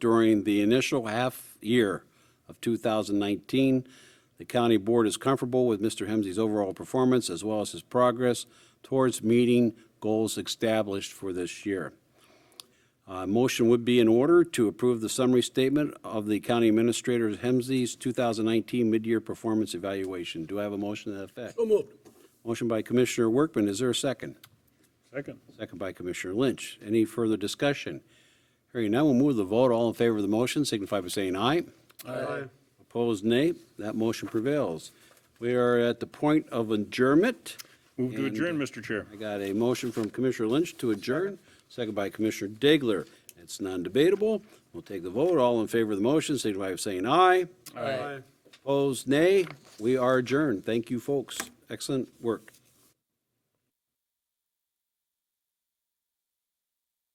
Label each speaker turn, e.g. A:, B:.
A: during the initial half year of 2019. The county board is comfortable with Mr. Hemsey's overall performance as well as his progress towards meeting goals established for this year. Uh, Motion would be in order to approve the summary statement of the county administrator Hemsey's 2019 mid-year performance evaluation. Do I have a motion to that effect?
B: So moved.
A: Motion by Commissioner Workman, is there a second?
B: Second.
A: Second by Commissioner Lynch. Any further discussion? Hearing none, we'll move to the vote. All in favor of the motion signify by saying aye.
B: Aye.
A: Opposed, nay. That motion prevails. We are at the point of adjournment.
B: Move to adjourn, Mr. Chair.
A: I got a motion from Commissioner Lynch to adjourn, second by Commissioner Degler. It's non-debatable. We'll take the vote. All in favor of the motion signify by saying aye.
B: Aye.
A: Opposed, nay. We are adjourned. Thank you, folks. Excellent work.